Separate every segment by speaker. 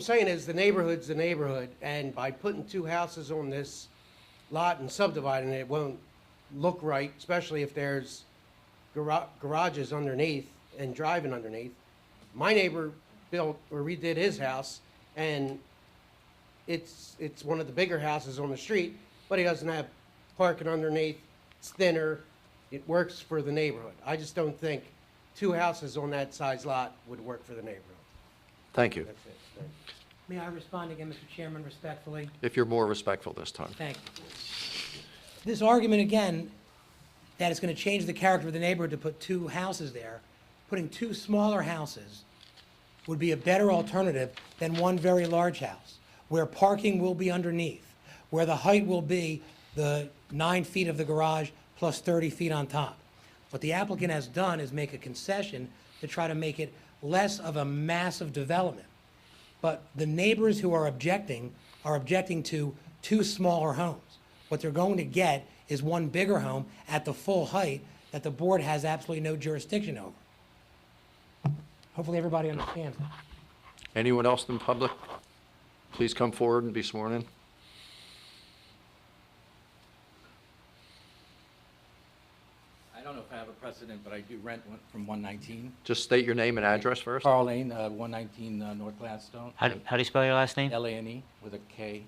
Speaker 1: I'm saying is the neighborhood's the neighborhood, and by putting two houses on this lot and subdividing it, it won't look right, especially if there's gara- garages underneath and driving underneath. My neighbor built or redid his house, and it's, it's one of the bigger houses on the street, but he doesn't have parking underneath, it's thinner, it works for the neighborhood. I just don't think two houses on that size lot would work for the neighborhood.
Speaker 2: Thank you.
Speaker 1: That's it, Thank you.
Speaker 3: May I respond again, Mr. Chairman, respectfully?
Speaker 2: If you're more respectful this time.
Speaker 3: Thank you. This argument again, that it's going to change the character of the neighborhood to put two houses there, putting two smaller houses would be a better alternative than one very large house, where parking will be underneath, where the height will be the nine feet of the garage plus 30 feet on top. What the applicant has done is make a concession to try to make it less of a massive development. But the neighbors who are objecting are objecting to two smaller homes. What they're going to get is one bigger home at the full height that the board has absolutely no jurisdiction over. Hopefully, everybody understands that.
Speaker 2: Anyone else in public? Please come forward and be sworn in.
Speaker 4: I don't know if I have a precedent, but I do rent one- from 119.
Speaker 2: Just state your name and address first.
Speaker 4: Carl Lane, uh, 119 uh, North Gladstone,
Speaker 5: How do, how do you spell your last name?
Speaker 4: L-A-N-E with a K.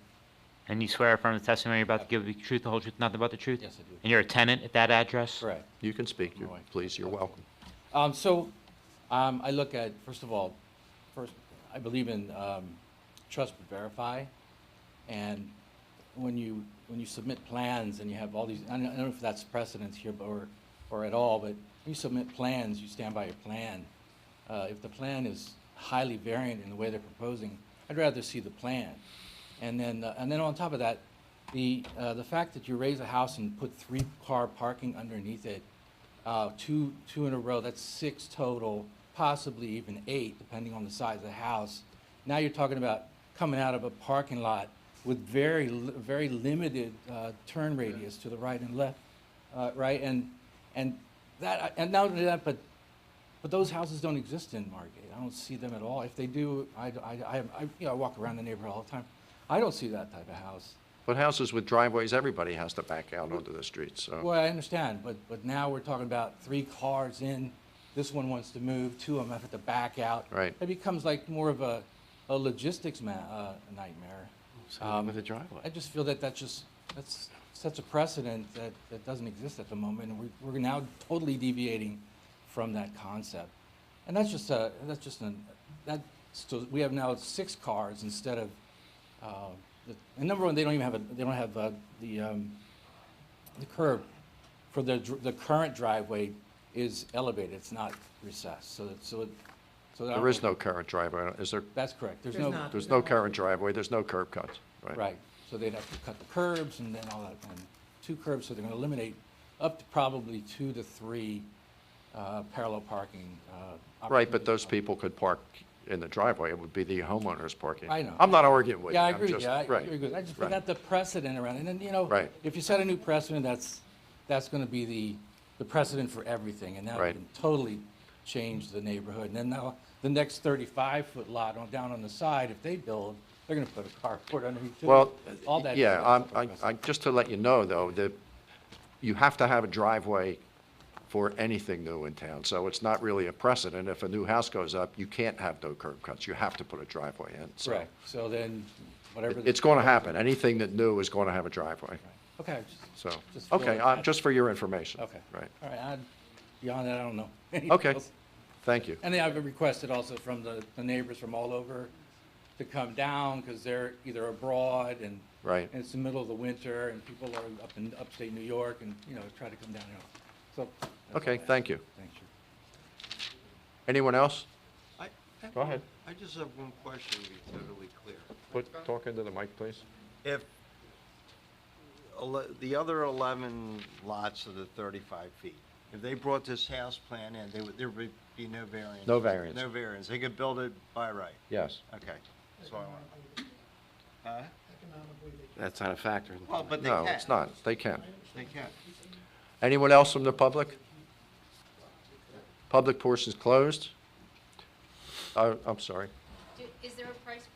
Speaker 5: And you swear affirm the testimony you're about to give the truth, the whole truth, nothing but the truth?
Speaker 4: Yes, I do.
Speaker 5: And you're a tenant at that address?
Speaker 4: Correct.
Speaker 2: You can speak, You're- please, you're welcome.
Speaker 4: Um, So um, I look at, first of all, first, I believe in um, trust but verify. And when you, when you submit plans and you have all these, I don't I don't know if that's precedence here but- or, or at all, but when you submit plans, you stand by your plan. Uh, If the plan is highly variant in the way they're proposing, I'd rather see the plan. And then, uh, and then on top of that, the, uh, the fact that you raise a house and put three-car parking underneath it, uh, two, two in a row, that's six total, possibly even eight, depending on the size of the house. Now you're talking about coming out of a parking lot with very, li- very limited uh, turn radius to the right and left, uh, right? And, and that, uh, and not only that, but but those houses don't exist in Margate. I don't see them at all. If they do, I, I, I, I- you know, I walk around the neighborhood all the time. I don't see that type of house.
Speaker 2: But houses with driveways, everybody has to back out onto the street, so.
Speaker 4: Well, I understand, but, but now we're talking about three cars in, this one wants to move, two of them have to back out.
Speaker 2: Right.
Speaker 4: It becomes like more of a, a logistics ma, uh, nightmare. Um,
Speaker 2: With a
Speaker 4: I
Speaker 2: driveway.
Speaker 4: just feel that that's just, that's such a precedent that, that doesn't exist at the moment, and we're, we're now totally deviating from that concept. And that's just a, that's just an, that, so we have now six cars instead of, uh, the- and number one, they don't even have a, they don't have, uh, the, um, the curb for the, dr- the current driveway is elevated, it's not recessed, so, that- so, it- so. that-
Speaker 2: There is no current driveway, is there?
Speaker 4: That's correct, there's
Speaker 3: There's
Speaker 4: no.
Speaker 3: not.
Speaker 2: There's no current driveway, there's no curb cuts, right?
Speaker 4: Right, so they'd have to cut the curbs and then all that, and two curbs, so they're gonna eliminate up to probably two to three, uh, parallel parking, uh.
Speaker 2: Right, but
Speaker 4: opportunities.
Speaker 2: those people could park in the driveway, it would be the homeowners parking.
Speaker 4: I know.
Speaker 2: I'm not arguing with you.
Speaker 4: Yeah, I
Speaker 2: I'm
Speaker 4: agree,
Speaker 2: just-
Speaker 4: yeah, I
Speaker 2: right,
Speaker 4: agree, with- I just
Speaker 2: right.
Speaker 4: forgot the precedent around, it. and then, you know.
Speaker 2: Right.
Speaker 4: If you set a new precedent, that's, that's gonna be the, the precedent for everything, and that
Speaker 2: Right.
Speaker 4: can totally change the neighborhood. And then now, the next thirty-five foot lot on, down on the side, if they build, they're gonna put a carport underneath it.
Speaker 2: Well,
Speaker 4: all that.
Speaker 2: yeah,
Speaker 4: stuff
Speaker 2: I'm-
Speaker 4: is a
Speaker 2: I,
Speaker 4: precedent.
Speaker 2: I, just to let you know, though, that you have to have a driveway for anything new in town, so it's not really a precedent. If a new house goes up, you can't have no curb cuts, you have to put a driveway in, so.
Speaker 4: Correct, so then, whatever. the-
Speaker 2: It's going to happen, anything that new is going to have a driveway,
Speaker 4: Okay, I just-
Speaker 2: so,
Speaker 4: Just feel
Speaker 2: okay,
Speaker 4: it.
Speaker 2: uh, just for your information.
Speaker 4: okay.
Speaker 2: Right,
Speaker 4: All right, I- beyond that, I don't know.
Speaker 2: okay, thank you.
Speaker 4: And then I've requested also from the, the neighbors from all over to come down, because they're either abroad and.
Speaker 2: Right.
Speaker 4: And it's the middle of the winter, and people are up in upstate New York, and, you know, try to come down here. So.
Speaker 2: Okay, thank you.
Speaker 4: Thank you.
Speaker 2: Anyone else?
Speaker 6: I- I-
Speaker 2: Go ahead.
Speaker 6: I just have one question to be totally clear.
Speaker 2: Put, talk into the mic, please.
Speaker 6: If ele- the other 11 lots of the 35 feet, if they brought this house plan in, they would- there would be no variance?
Speaker 2: No variance.
Speaker 6: No variance. They could build it by right?
Speaker 2: Yes.
Speaker 6: Okay. That's what I want. Huh?
Speaker 7: That's not a factor.
Speaker 6: Well, but they
Speaker 2: No,
Speaker 6: can.
Speaker 2: it's not, they can.
Speaker 6: They can.
Speaker 2: Anyone else from the public? Public portion's closed. Oh, I'm sorry.
Speaker 8: Do- Is there a price